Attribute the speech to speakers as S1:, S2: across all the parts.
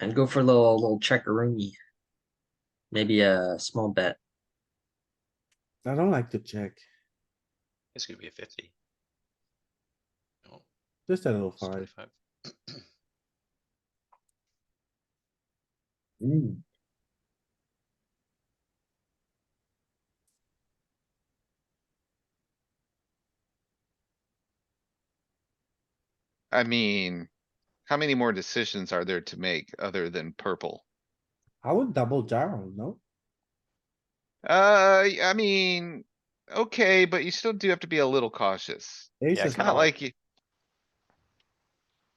S1: I'd go for a little little checkeroony. Maybe a small bet.
S2: I don't like to check,
S3: It's gonna be a fifty. No,
S2: just a little
S3: it's
S2: five.
S3: 25.
S4: I mean, how many more decisions are there to make other than purple?
S2: I would double gyro, no?
S4: Uh, I mean, okay, but you still do have to be a little cautious.
S2: Ace
S3: Yeah,
S2: is
S4: Not
S5: Uh-huh.
S3: kinda
S2: out.
S4: like you,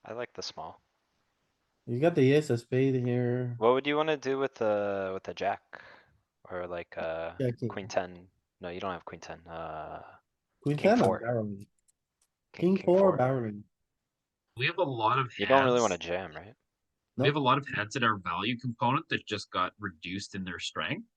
S3: I like the small.
S2: You got the ace of spade here.
S5: What would you wanna do with the, with the jack? Or like, uh,
S2: Checking.
S5: queen ten? No, you don't have queen ten, uh.
S2: Queen
S5: king
S2: ten or
S5: four.
S2: barreling? King four barreling.
S6: We have a lot of
S5: You don't really wanna
S6: hands-
S5: jam, right?
S6: We have a lot of hands in our value component that just got reduced in their strength.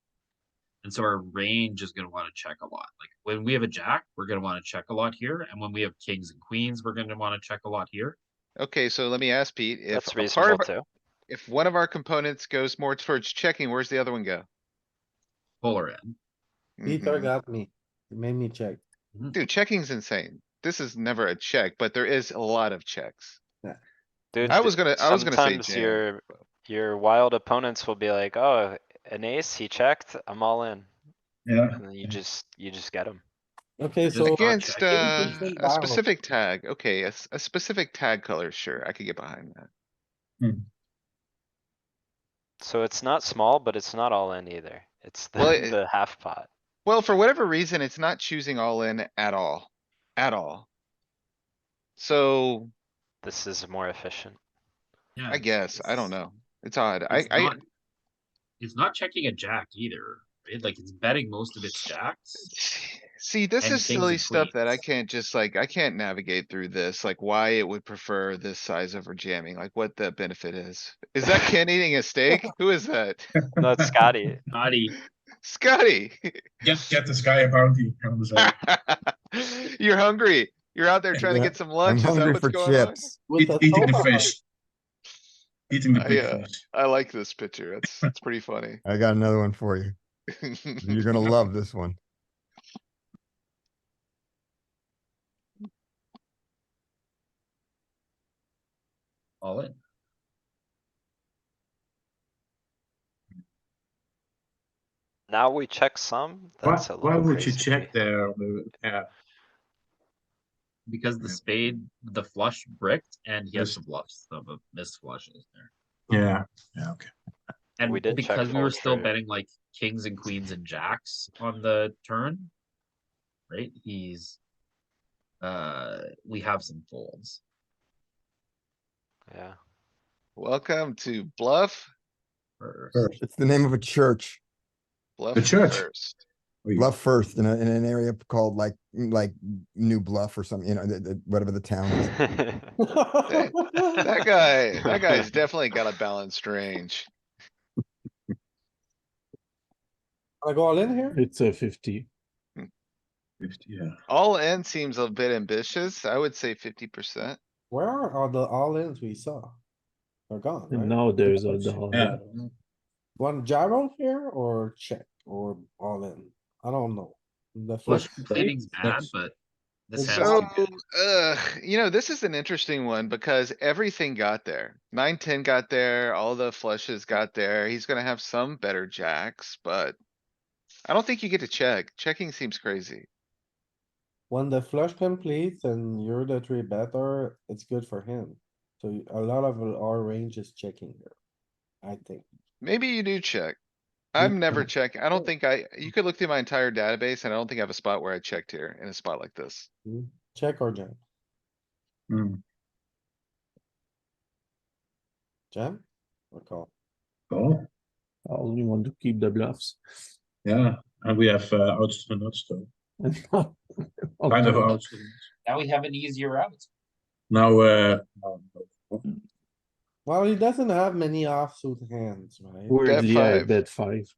S6: And so our range is gonna wanna check a lot. Like when we have a jack, we're gonna wanna check a lot here, and when we have kings and queens, we're gonna wanna check a lot here.
S4: okay, so let me ask Pete, if
S5: That's
S4: a part
S5: reasonable
S4: of,
S5: too.
S4: if one of our components goes more towards checking, where's the other one go?
S6: Polar end.
S2: Peter
S4: Mhm.
S2: got me. He made me check.
S4: Dude, checking's insane. This is never a check, but there is a lot of checks.
S5: Dude,
S4: I
S5: d-
S4: was gonna- I was gonna say
S5: sometimes
S4: jam.
S5: Your, your wild opponents will be like, oh, an ace, he checked, I'm all in.
S7: Yeah.
S5: And then you just, you just get him.
S2: Okay,
S6: Just
S2: so.
S6: not
S4: Against,
S6: checking.
S4: uh,
S2: It's been
S4: a
S2: viral.
S4: specific tag, okay, a, s- a specific tag color, sure, I could get behind that.
S5: So it's not small, but it's not all in either. It's the,
S4: Well, it-
S5: the half pot.
S4: Well, for whatever reason, it's not choosing all in at all, at all. So
S5: This is more efficient.
S6: Yeah,
S4: I guess, I don't
S6: it's-
S4: know. It's odd. I,
S6: it's
S4: I,
S6: not- It's not checking a jack either, right? Like it's betting most of its jacks.
S4: see, this
S6: and
S4: is
S6: kings and
S4: silly stuff that I
S6: queens.
S4: can't just like, I can't navigate through this, like why it would prefer this size over jamming, like what the benefit is. Is that Ken eating a steak? Who is that?
S5: No, it's Scotty.
S6: Naughty.
S4: Scotty!
S7: Get, get this guy a bounty. I'm just like,
S4: You're hungry. You're out there trying to
S7: Yeah,
S4: get some lunch. Is that what's going on?
S2: With
S7: eat-
S2: the
S7: Eating the
S2: sofa.
S7: fish. Eating the
S5: Oh,
S4: I,
S7: big
S4: uh,
S7: fish.
S4: I like this picture. That's, that's pretty funny.
S8: I got another one for you. You're gonna love this one.
S6: All in.
S5: Now we check some,
S7: Why,
S5: that's a
S7: why
S5: little
S7: would you
S5: crazy. to
S7: check
S5: me.
S7: there? The- Yeah,
S6: Because the
S7: Yeah.
S6: spade, the flush bricked, and he has
S7: Yes.
S6: some bluffs, some of missed flushes there.
S7: yeah, yeah, okay.
S6: And
S5: We did check
S6: because we were
S5: fold
S6: still
S5: trade.
S6: betting like kings and queens and jacks on the turn. Right, he's. Uh, we have some folds.
S5: Yeah,
S4: Welcome to Bluff,
S6: for-
S8: It's the name of a church,
S4: Bluff
S7: church.
S4: first.
S7: Wait.
S8: Bluff First, in a, in an area called like, like New Bluff or something, you know, the- the- whatever the town is.
S4: That guy, that guy's definitely got a balanced range.
S2: I go all in here?
S9: It's a fifty.
S7: Fifty, Yeah.
S4: All in seems a bit ambitious. I would say fifty percent.
S2: Where are all the all ins we saw? They're gone,
S9: And
S2: right?
S9: now there's a dollar.
S7: Yeah.
S2: One gyro here or check or all in? I don't know. The
S6: Flush
S2: flush.
S6: completing's bad,
S2: that's-
S6: but this
S2: that's-
S6: hand's
S4: So,
S6: too good.
S4: ugh, you know, this is an interesting one because everything got there. Nine, ten got there, all the flushes got there. He's gonna have some better jacks, but. I don't think you get to check. Checking seems crazy.
S2: When the flush completes and you're the three better, it's good for him. So a lot of our range is checking here, I think.
S4: Maybe you do check. I'm never
S2: don't.
S4: checking. I don't think I, you could look through my entire database and I don't think I have a spot where I checked here in a spot like this.
S2: Check or jam?
S7: Mm,
S2: Jam? Or call?
S7: cool.
S9: I only want to keep the bluffs.
S7: Yeah, and we have, uh, outs to nuts though.
S9: And now-
S7: Kind of outs. to nuts.
S6: Now we have an easier out.
S7: Now, uh, no, no.
S2: Well, he doesn't have many offsuit hands, right?
S9: Weirdly, I
S4: five.
S9: bet five.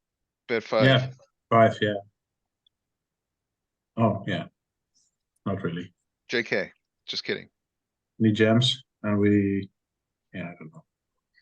S4: Bet
S7: yeah,
S4: five.
S7: five, yeah. Oh, yeah. Not really.
S4: JK, just kidding.
S7: We jams and we, yeah, I don't know.